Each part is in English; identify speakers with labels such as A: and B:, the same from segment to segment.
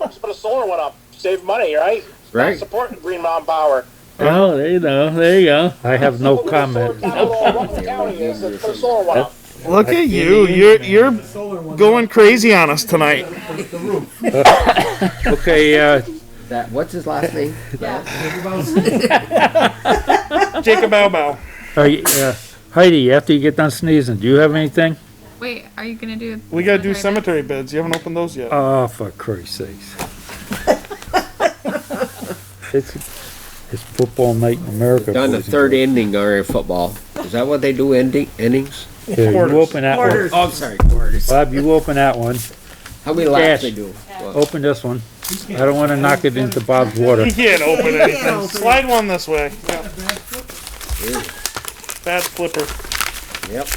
A: have to put a solar one up. Save money, right?
B: Right.
A: Support green mountain power.
C: Well, there you go, there you go. I have no
A: Look at the solar
C: comment.
A: capital of Rutland County is, let's put a solar one up.
D: Look at you. You're you're going crazy on us tonight.
C: Okay, uh,
B: That, what's his last name?
D: Jacob Bow.
C: are you, uh, Heidi, after you get done sneezing, do you have anything?
E: Wait, are you gonna do?
D: We gotta do cemetery
E: cemetery
D: beds. You haven't opened those yet.
B: Uh,
C: Oh, for Christ's sakes. It's, it's football night in America.
B: Done the
C: boys and
B: third ending or football. Is that what they do, ending, innings?
C: girls. Here,
D: Quarters.
C: You open that one.
B: Oh, I'm sorry, quarters.
C: Bob, you open that one.
B: How many laps
C: Yes.
B: they do? Well,
C: Open this one. I don't wanna knock it into Bob's water.
D: He can't open anything. Slide one this way. Yeah. Bad flipper.
B: Yep.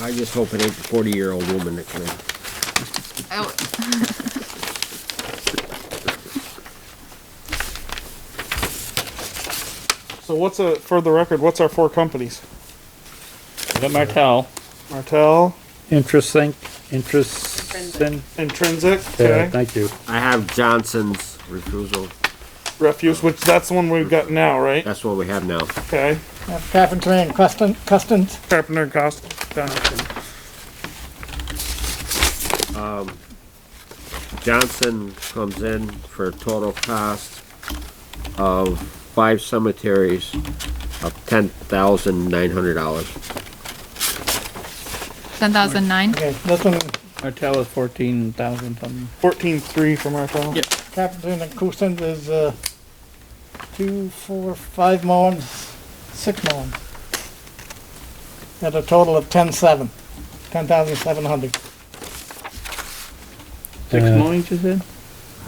B: I just hope it ain't the forty-year-old woman that can.
E: Oh,
D: So what's a for the record? What's our four companies?
F: But Martel,
D: Martel,
C: Interesting, interesting.
D: Intrinsic,
C: Yeah,
D: okay.
C: thank you.
B: I have Johnson's refusal.
D: Refuse, which that's the one we've got now, right?
B: That's what we have now.
D: Okay.
G: Carpentry and custom, customs.
D: Carpenter and cost. Done.
B: Johnson comes in for a total cost of five cemeteries of ten thousand nine hundred dollars.
E: ten thousand nine.
G: Okay, this one,
F: Martel is fourteen thousand something.
D: Fourteen three for Martel.
F: Yep.
G: carpentry and customs is, uh, two, four, five mowings, six mowings. At a total of ten-seven, ten thousand seven hundred.
F: Six
C: Uh,
F: mowings, you said?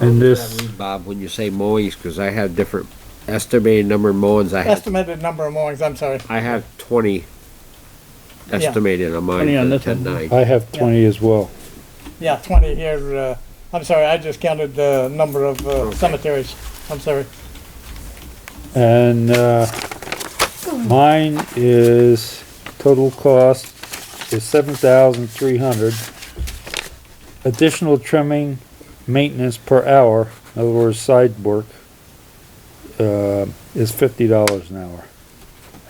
C: And this,
B: Bob, when you say mowings, because I have different estimated number of mowings, I have,
G: Estimated number of mowings, I'm sorry.
B: I have twenty
G: Yeah.
B: estimated on mine
F: 20 on
B: for
F: this one.
B: ten nine.
C: I have twenty as well.
G: Yeah, twenty here, uh, I'm sorry, I just counted the number of uh, cemeteries. I'm sorry.
C: And, uh, mine is, total cost is seven thousand three hundred. Additional trimming, maintenance per hour, in other words, side work, uh, is fifty dollars an hour.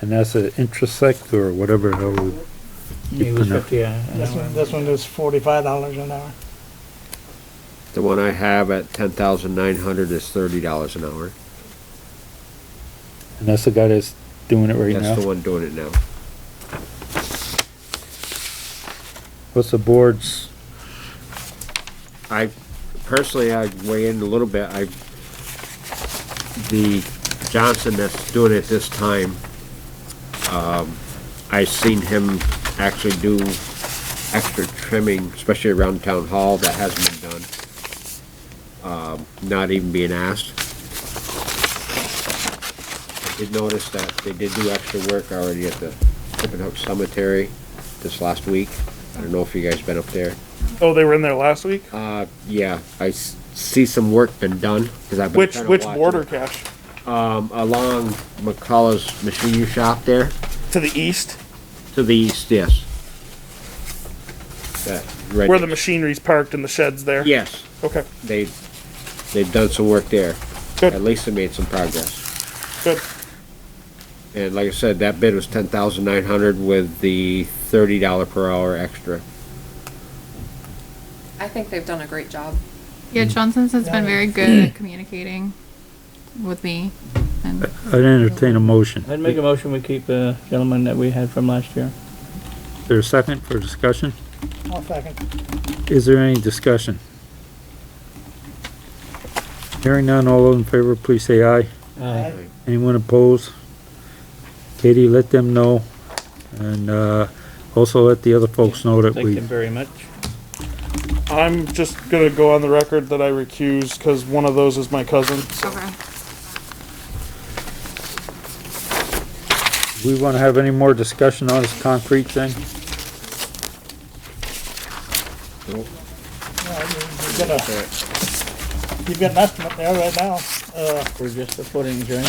C: And that's an intersect or whatever the hell we
F: It was fifty, uh, an
G: This
F: hour.
G: one, this one is forty-five dollars an hour.
B: The one I have at ten thousand nine hundred is thirty dollars an hour.
C: And that's the guy that's doing it right
B: That's the
C: now.
B: one doing it now.
C: What's the board's,
B: I personally, I weigh in a little bit. I, the Johnson that's doing it this time, um, I seen him actually do extra trimming, especially around town hall that hasn't been done. Um, not even being asked. I did notice that they did do extra work already at the Tippin Hook Cemetery this last week. I don't know if you guys been up there.
D: Oh, they were in there last week?
B: Uh, yeah, I s- see some work been done, because I've been
D: Which,
B: kinda
D: which
B: watching.
D: border cache?
B: Um, along McCullough's machine shop there,
D: To the east,
B: to the east, yes. That, right.
D: where the
B: there.
D: machinery's parked in the sheds there?
B: Yes,
D: Okay,
B: they, they've done some work there.
D: Good.
B: At least they made some progress.
D: good.
B: And like I said, that bid was ten thousand nine hundred with the thirty dollar per hour extra.
H: I think they've done a great job.
E: Yeah, Johnson's has been very good at communicating with me, and
C: I'd entertain a motion.
F: I'd make a motion, we keep the gentleman that we had from last year.
C: Is there a second for discussion?
G: One second.
C: Is there any discussion? Hearing none, all those in favor, please say aye.
F: Aye.
C: Anyone opposed? Katie, let them know, and, uh, also let the other folks know that
F: Thank you
C: we,
F: very much.
D: I'm just gonna go on the record that I recuse, cause one of those is my cousin, so.
E: okay.
C: we wanna have any more discussion on this concrete thing?
G: You've got an estimate there right now, uh.
F: We're just the footings, right?